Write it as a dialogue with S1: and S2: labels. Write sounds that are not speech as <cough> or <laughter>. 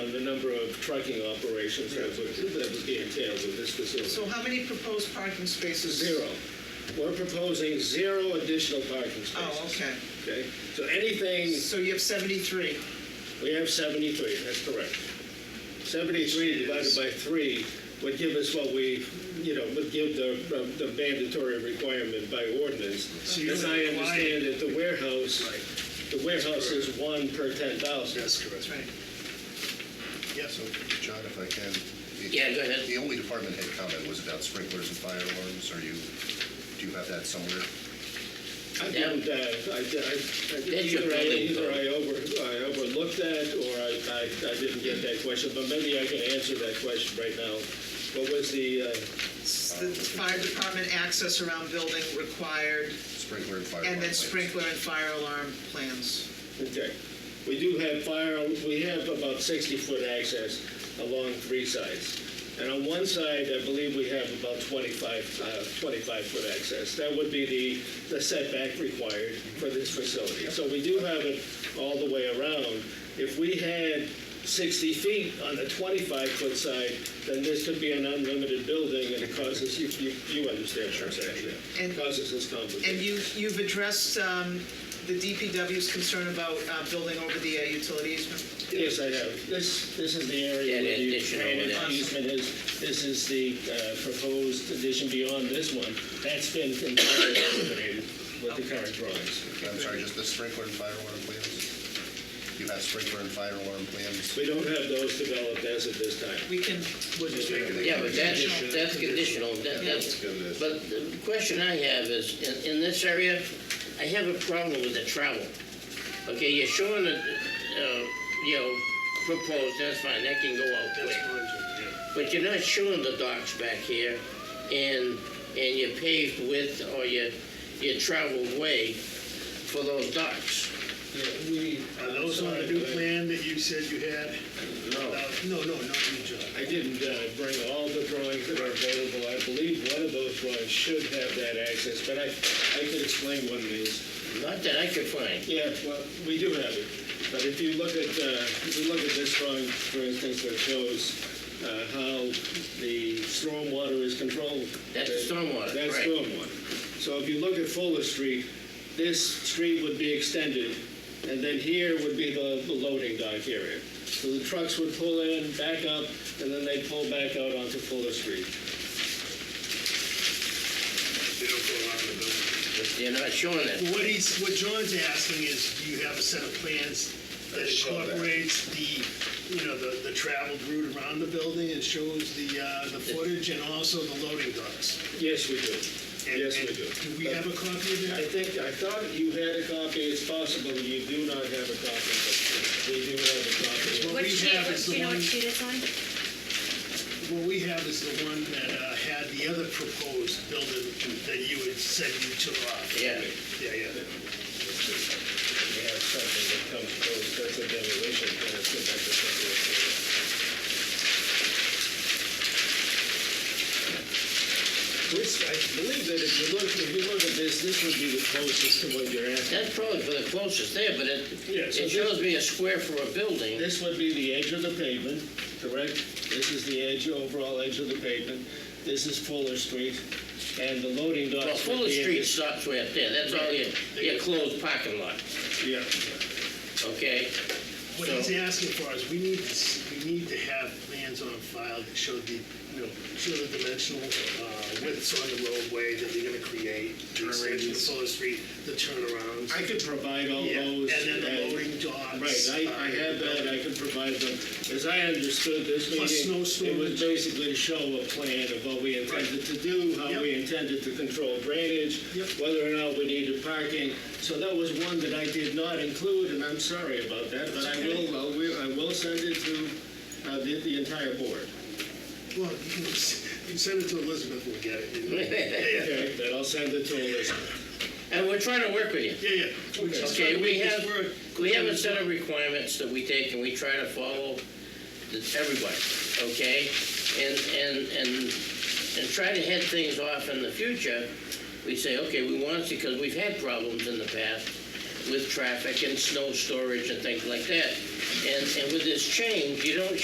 S1: of trucking operations that would, that would be entailed with this facility.
S2: So how many proposed parking spaces?
S1: Zero. We're proposing zero additional parking spaces.
S2: Oh, okay.
S1: Okay, so anything,
S2: So you have 73.
S1: we have 73, that's correct. 73 divided by 3 would give us what we, you know, would give the, the mandatory requirement by ordinance.
S3: So you're
S1: As I
S3: required-
S1: understand it, the warehouse, the warehouse is one per 10,000.
S3: That's correct.
S2: That's right.
S4: Yeah, so, John, if I can. the-
S5: Yeah, go ahead.
S4: The only department head comment was about sprinklers and fire alarms. Are you, do you have that somewhere?
S1: I
S5: Yeah.
S1: didn't, uh, I, I- I,
S5: That's your
S1: either I,
S5: building
S1: either
S5: code.
S1: I over, I overlooked that, or I, I, I didn't get that question, but maybe I can answer that question right now. What was the, uh,
S2: It's The fire department access around building required,
S4: Sprinkler and fire alarm.
S2: and then
S4: plans.
S2: sprinkler and fire alarm plans.
S1: okay. We do have fire, we have about sixty-foot access along three sides. And on one side, I believe we have about twenty-five, uh, twenty-five foot access. That would be the, the setback required for this facility. So we do have it all the way around. If we had 60 feet on the 25-foot side, then this could be an unlimited building, and it causes, you, you you understand what I'm saying? yeah.
S2: And-
S1: Causes this
S2: And
S1: complication.
S2: you, you've addressed um, the DPW's concern about uh, building over the uh, utility easement?
S1: Yes, I have. This, this is the area where
S5: Yeah, the
S1: the
S5: addition
S1: drainage
S5: over there.
S1: easement is. This is the uh, proposed addition beyond this one. That's been entirely eliminated with the current drawings.
S4: I'm sorry, just the sprinkler and fire alarm plans? You have sprinkler and fire alarm plans?
S1: We don't have those developed as of this time.
S2: We can,
S5: Yeah, but that's, that's conditional, that, that's, but the question I have is, in, in this area, I have a problem with the travel. Okay, you're showing a, uh, you know, proposed, that's fine, that can go out quick. But you're not showing the docks back here and, and your paved width or your, your traveled way for those docks.
S1: uh,
S3: Are those on the new plan that you said you had?
S5: No.
S3: Uh, No, no, not you, John.
S1: I didn't uh, bring all the drawings that are available. I believe one of those drawings should have that access, but I, I could explain what it is.
S5: Not that I could find.
S1: Yeah, well, we do have it. But if you look at, uh, if you look at this drawing, for instance, that shows uh, how the stormwater is controlled.
S5: That's the stormwater,
S1: That's
S5: right.
S1: stormwater. So if you look at Fuller Street, this street would be extended, and then here would be the the loading dock area. So the trucks would pull in, back up, and then they'd pull back out onto Fuller Street.
S5: You're not showing it.
S3: Well, What he's, what John's asking is, do you have a set of plans that incorporates the, you know, the, the traveled route around the building and shows the, uh, the footage and also the loading docks?
S1: Yes, we do.
S3: And-
S1: Yes, we
S3: and
S1: do.
S3: Do we have a copy of
S1: I
S3: that?
S1: think, I thought you had a copy, it's possible you do not have a copy, but we do have a copy.
S3: What
S6: What
S3: we
S6: sheet,
S3: have
S6: what-
S3: is
S6: do
S3: the
S6: you
S3: one-
S6: know what sheet it's on?
S3: What we have is the one that uh, had the other proposed building that you had said you took off.
S5: Yeah.
S3: Yeah, yeah.
S1: We have something that comes close, that's a demolition, plan. let's get back to something. else. This, I believe that if you look, if you look at this, this would be the closest to what you're asking.
S5: That's probably for the closest there, but it,
S1: Yeah, so this-
S5: it shows me a square for a building.
S1: This would be the edge of the pavement, correct? This is the edge, overall edge of the pavement. This is Fuller Street, and the loading docks.
S5: Well,
S1: would
S5: Fuller
S1: be in
S5: Street
S1: this-
S5: stops right there, that's all your, your closed parking lot,
S1: Yeah.
S5: okay?
S3: What
S5: So-
S3: he's asking for is, we need, to s- we need to have plans on file that show the, you know, show the dimensional uh, widths on the roadway that you're gonna create, the extension of Fuller Street, the turnarounds.
S1: I could provide all
S3: Yeah, And
S1: those.
S3: then the
S1: and-
S3: loading docks.
S1: Right, I, I have that, I can provide them. As I understood this
S3: Plus
S1: meeting,
S3: snow
S1: it was
S3: storage.
S1: basically to show a plan of what we intended to do, how we
S3: Yep.
S1: intended to control drainage,
S3: Yep.
S1: whether or not we needed parking. So that was one that I did not include, and I'm sorry about that, but I will, I will- I will send it to uh, the, the entire
S3: <laughs>
S1: board.
S3: Well, you can s- you send it to Elizabeth, we'll get it.
S5: <laughs>
S3: you know.
S1: Okay, then I'll send it to Elizabeth.
S5: And we're trying to work with you.
S3: Yeah, yeah. We're just trying
S5: Okay,
S3: to
S5: we
S3: make this
S5: have,
S3: work.
S5: we have a set of requirements that we take and we try to follow the- everybody, okay? And, and, and, and try to head things off in the future. We say, okay, we want to, because we've had problems in the past with traffic and snow storage and things like that. And, and with this change, you don't